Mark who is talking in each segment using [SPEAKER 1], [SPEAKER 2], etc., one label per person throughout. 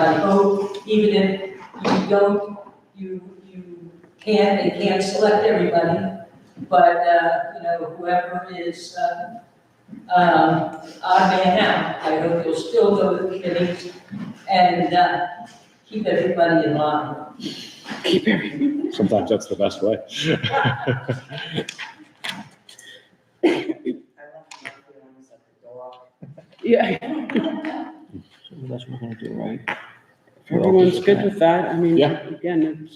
[SPEAKER 1] I vote, even if you don't, you, you can and can't select everybody, but, uh, you know, whoever is, uh, um, odd man out, I hope you'll still go to the committee and, uh, keep everybody in line.
[SPEAKER 2] Keep everything. Sometimes that's the best way.
[SPEAKER 3] I left my feelings at the door.
[SPEAKER 4] Yeah,
[SPEAKER 5] That's what we're gonna do, right?
[SPEAKER 4] if everyone's good with that, I mean,
[SPEAKER 2] Yeah.
[SPEAKER 4] again, it's,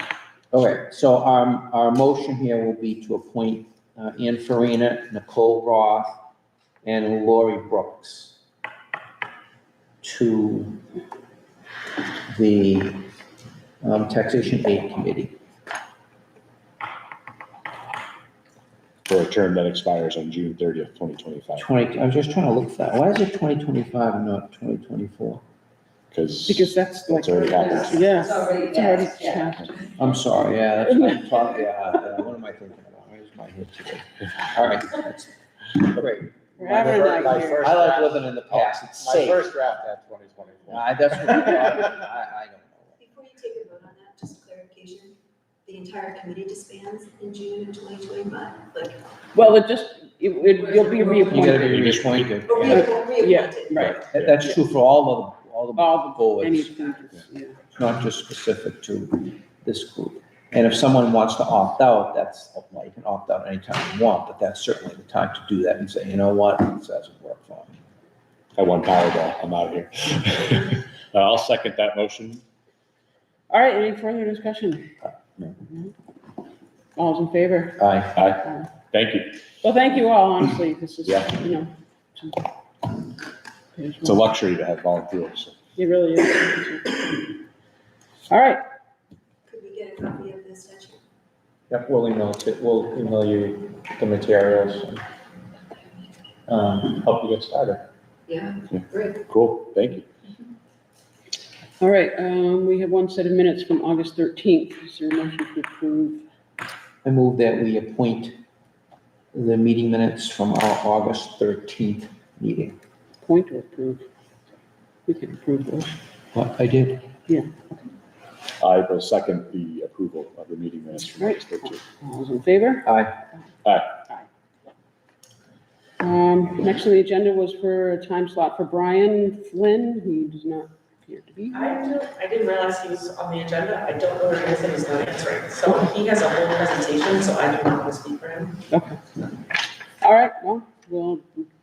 [SPEAKER 5] Okay, so our, our motion here will be to appoint uh, Ann Farina, Nicole Roth, and Lori Brooks to the um, Taxation Aid Committee.
[SPEAKER 2] For a term that expires on June thirtieth, twenty twenty-five,
[SPEAKER 5] Twenty, I was just trying to look for that. Why is it twenty twenty-five and not twenty twenty-four?
[SPEAKER 2] because
[SPEAKER 4] because that's like,
[SPEAKER 2] it's already happened.
[SPEAKER 1] It's
[SPEAKER 4] yes,
[SPEAKER 1] already
[SPEAKER 4] it's already
[SPEAKER 1] passed, yeah.
[SPEAKER 4] passed.
[SPEAKER 5] I'm sorry, yeah, that's what I'm talking, yeah, what am I thinking about? Where's my head today? All right, that's great.
[SPEAKER 4] We're having a
[SPEAKER 5] My
[SPEAKER 4] night here.
[SPEAKER 5] I like living in the past, it's safe.
[SPEAKER 2] draft had twenty twenty-four.
[SPEAKER 5] I, that's what I'm talking about. I, I don't know.
[SPEAKER 6] Before you take a vote on that, just clarification, the entire committee disbands in June of twenty twenty-five, like,
[SPEAKER 4] Well, it just, it, it- you'll be
[SPEAKER 5] You
[SPEAKER 4] reappointed,
[SPEAKER 5] gotta be reappointed.
[SPEAKER 6] or
[SPEAKER 5] Uh, Yeah.
[SPEAKER 6] reappointed.
[SPEAKER 4] yeah, right,
[SPEAKER 5] That- That's true for all of, all
[SPEAKER 4] All
[SPEAKER 5] the boards,
[SPEAKER 4] anything, yeah.
[SPEAKER 5] not just specific to this group. And if someone wants to opt out, that's, well, you can opt out anytime you want, but that's certainly the time to do that and say, you know what, this doesn't work for me.
[SPEAKER 2] I won Powerball, I'm out of here. Uh, I'll second that motion.
[SPEAKER 4] All right, any further discussion?
[SPEAKER 2] No.
[SPEAKER 4] All's in favor?
[SPEAKER 5] Aye.
[SPEAKER 2] Aye, thank you.
[SPEAKER 4] Well, thank you all, honestly, this is,
[SPEAKER 2] Yeah.
[SPEAKER 4] you know.
[SPEAKER 2] It's a luxury to have volunteers.
[SPEAKER 4] It really is. All right,
[SPEAKER 6] Could we get a copy of the statute?
[SPEAKER 5] Yep, we'll email it, we'll email you the materials, um, help you get started.
[SPEAKER 6] Yeah,
[SPEAKER 2] Yeah.
[SPEAKER 6] great.
[SPEAKER 2] Cool, thank you.
[SPEAKER 4] all right, um, we have one set of minutes from August thirteenth, is there a motion to approve?
[SPEAKER 5] I move that we appoint the meeting minutes from our August thirteenth meeting.
[SPEAKER 4] Point to approve? We can approve those.
[SPEAKER 5] What I did.
[SPEAKER 2] I will second the approval of the meeting minutes from August thirteenth.
[SPEAKER 4] All's in favor?
[SPEAKER 5] Aye.
[SPEAKER 4] Um, next on the agenda was for a time slot for Brian Flynn, who does not appear to be.
[SPEAKER 3] I don't, I didn't realize he was on the agenda. I don't know where he is and he's not answering. So he has a whole presentation, so I do not want to speak for him.
[SPEAKER 4] All right, well, we'll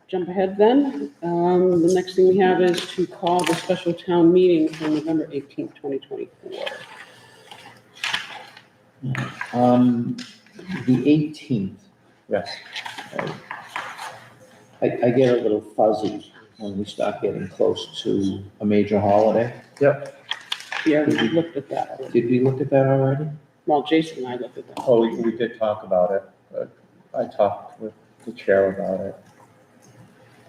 [SPEAKER 4] jump ahead then. Um, the next thing we have is to call the special town meeting for November eighteenth, twenty twenty-four.
[SPEAKER 5] Um, the eighteenth.
[SPEAKER 2] Yes.
[SPEAKER 5] I, I get a little fuzzy when we start getting close to a major holiday.
[SPEAKER 4] Yeah, we looked at that. already.
[SPEAKER 5] Did we look at that already?
[SPEAKER 4] Well, Jason and I looked at that.
[SPEAKER 7] Oh, we, we did talk about it, but I talked with the chair about it.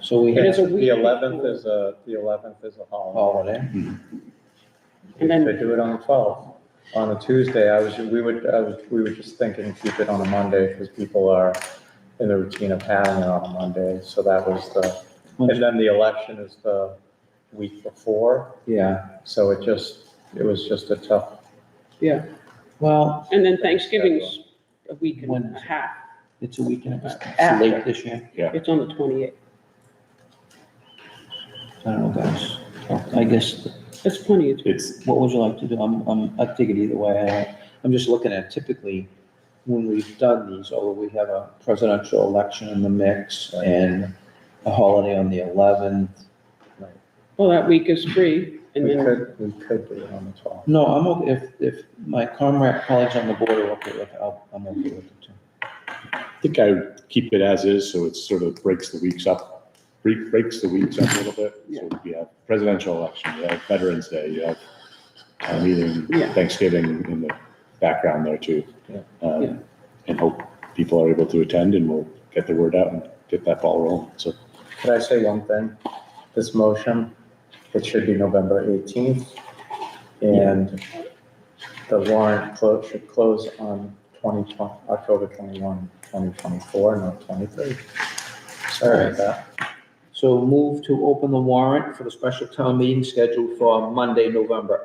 [SPEAKER 5] So we
[SPEAKER 4] It
[SPEAKER 5] had
[SPEAKER 4] is a week
[SPEAKER 7] The eleventh is a, the eleventh is a
[SPEAKER 5] a
[SPEAKER 7] holiday.
[SPEAKER 5] holiday.
[SPEAKER 4] And
[SPEAKER 7] We
[SPEAKER 4] then-
[SPEAKER 7] could do it on the twelfth. On a Tuesday, I was, we would, I was, we were just thinking keep it on a Monday because people are in the routine of having it on a Monday. So that was the, and then the election is the week before.
[SPEAKER 5] Yeah,
[SPEAKER 7] So it just, it was just a tough,
[SPEAKER 5] well,
[SPEAKER 4] And then Thanksgiving's a week and a half.
[SPEAKER 5] it's a weekend, it's
[SPEAKER 4] After.
[SPEAKER 5] late this year.
[SPEAKER 4] It's on the twenty-eighth.
[SPEAKER 5] I don't know, guys. I guess,
[SPEAKER 4] That's plenty of time.
[SPEAKER 2] It's,
[SPEAKER 5] what would you like to do? I'm, I'm, I take it either way. I- I'm just looking at typically when we've done these, although we have a presidential election in the mix and a holiday on the eleventh.
[SPEAKER 4] Well, that week is free and
[SPEAKER 7] we
[SPEAKER 4] then,
[SPEAKER 7] could, we could do it on the twelfth.
[SPEAKER 5] No, I'm okay, if, if my comrade colleagues on the board are okay with it, I'll- I'm okay with it too.
[SPEAKER 2] I think I would keep it as is, so it sort of breaks the weeks up, bre- breaks the weeks up a little bit. So you have presidential election, you have Veterans Day, you have a meeting,
[SPEAKER 4] Yeah.
[SPEAKER 2] Thanksgiving in the background there too.
[SPEAKER 7] Yeah.
[SPEAKER 2] Um,
[SPEAKER 4] Yeah.
[SPEAKER 2] And hope people are able to attend and we'll get the word out and get that ball rolling, so.
[SPEAKER 7] Could I say one thing? This motion, it should be November 18th, and the warrant clo- should close on 2020, October 21, 2024, not 23. Sorry about that.
[SPEAKER 5] So move to open the warrant for the special town meeting scheduled for Monday, November